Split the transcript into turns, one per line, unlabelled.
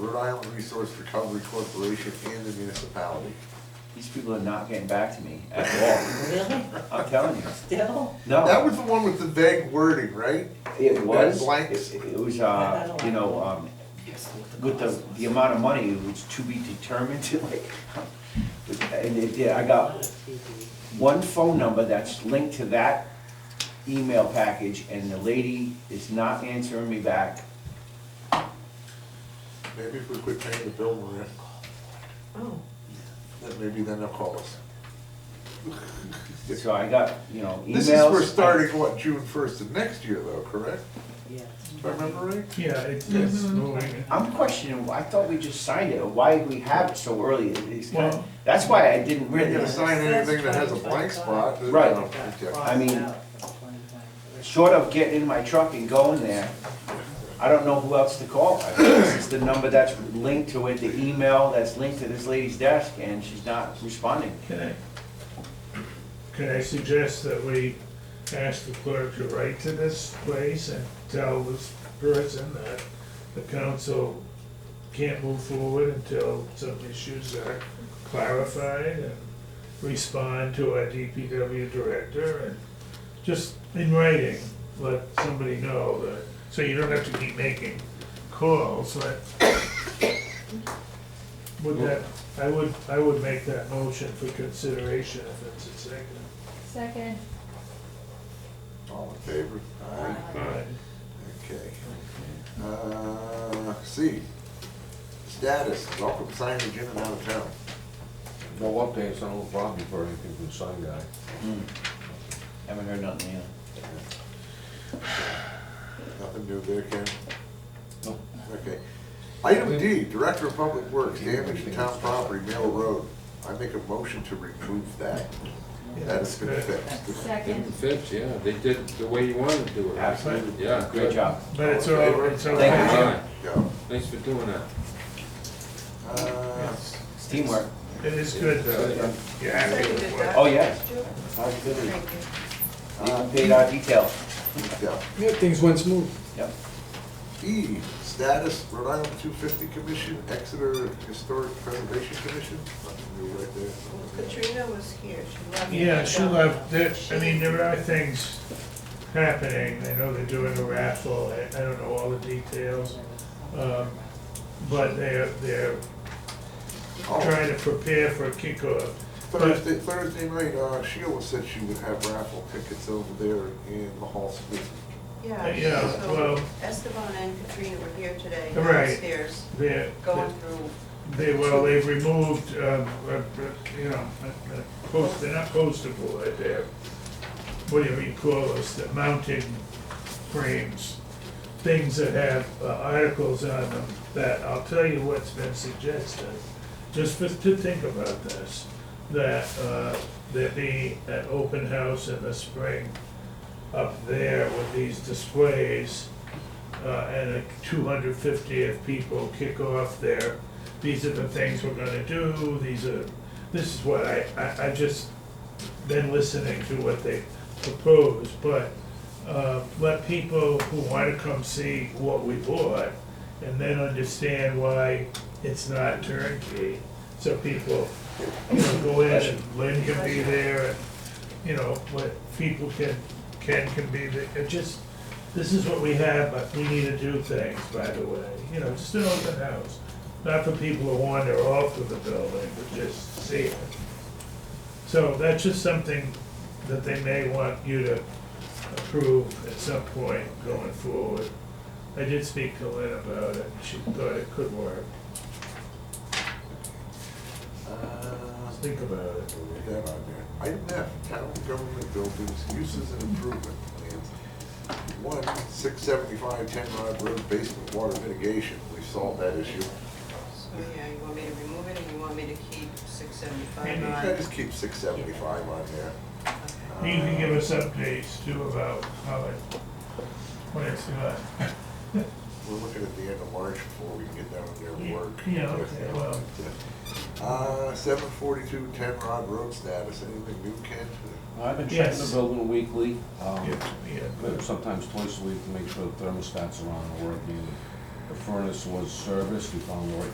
Rhode Island Resource Recovery Corporation and the municipality.
These people are not getting back to me at
Really?
all. I'm telling you.
Still?
That
No,
was the one with the vague wording, right?
it was,
blanks.
it it was, uh, you know, um, with the, the amount of money, it was to be determined to like, and it, yeah, I got one phone number that's linked to that email package and the lady is not answering me back.
Maybe if we quit paying the bill, Maria,
Oh,
then maybe then they'll call us.
So I got, you know, emails.
This is, we're starting, what, June first of next year though, correct?
yes.
If I remember right?
Yeah, it's, it's moving.
I'm questioning, I thought we just signed it, why did we have it so early? It- It's kind
Well-
of, that's why I didn't
We're not gonna
really,
sign anything that has a blank spot. that-
Right.
Okay.
I mean- short of getting in my truck and going there, I don't know who else to call. I mean, This is the number that's linked to it, the email that's linked to this lady's desk, and she's not responding.
Can I, can I suggest that we ask the clerk to write to this place and tell this person that the council can't move forward until some issues are clarified and respond to our DPW director and just in writing, let somebody know that, so you don't have to keep making calls, that. Would that, I would, I would make that motion for consideration if it's a second.
Second.
All in favor? Aye.
Alright.
Okay. Uh, C, status, welcome signage in and out of town.
No updates on Old Broadview for anything from the sign guy.
Hmm. Haven't heard nothing yet.
Nothing new there, Ken?
Nope.
Okay. Item D, Director of Public Works, damage to town property, Mill Road. I make a motion to remove that. That has been fixed.
Second.
Fits, yeah, they did it the way you wanted to do it.
Absolutely.
Yeah,
Great
good.
job.
But it's all, it's all.
Thank you.
Alright,
Go.
Thanks for doing that.
Uh,
Yes.
It's teamwork.
It is good though, you're happy with what.
Oh, yeah.
Thank
Positivity.
you.
Even Uh, paid our detail.
yeah.
Yeah, things went smooth.
Yep.
E, status, Rhode Island two fifty Commission, Exeter Historic Preservation Commission. Nothing new right there.
Katrina was here, she loved it.
Yeah, she loved it, I mean, there are things happening, I know they're doing a raffle, I, I don't know all the details. um, But they're, they're
Oh,
trying to prepare for a kickoff.
Thursday, Thursday night, uh, Sheila said she would have raffle tickets over there in the hall suite.
Yeah,
Yeah, so
well-
Esteban and Katrina were here today
Right.
downstairs,
They're,
going through,
they, well, they've removed, um, uh, uh, you know, uh, uh, post, they're not poster board, they're, what do you call those, the mounting frames. Things that have uh, articles on them, that, I'll tell you what's been suggested, just for, to think about this, that, uh, there be an open house in the spring up there with these displays, uh, and a 250 if people kick off their, these are the things we're gonna do, these are, this is what I, I, I've just been listening to what they propose, but, uh, let people who wanna come see what we bought, and then understand why it's not turnkey, so people, you know, go in and Lynn can be there, and, you know, what people can, Ken can be there, it just, this is what we have, but we need to do things, by the way, you know, just an open house. Not for people who wander off of the building, but just see it. So that's just something that they may want you to approve at some point going forward. I did speak to Lynn about it, she thought it could work,
Uh,
think about it.
Put that on there. Item F, town government buildings, uses and improvement plans. One, six seventy-five, ten Rod Road, basement water mitigation, we solved that issue.
so yeah, you want me to remove it or you want me to keep six seventy-five
Maybe
You
on?
can just keep six seventy-five on there. Uh,
Okay.
You can give us updates too about how it, what it's doing.
We're looking at the end of March before we can get down there and
Yeah,
work.
yeah, okay, well.
Uh, seven forty-two, ten Rod Road status, anything new, Ken?
I've been checking the
Yes.
building weekly, um,
Yeah, yeah.
sometimes twice a week to make sure the thermostats are on and working. The furnace was serviced, we found the right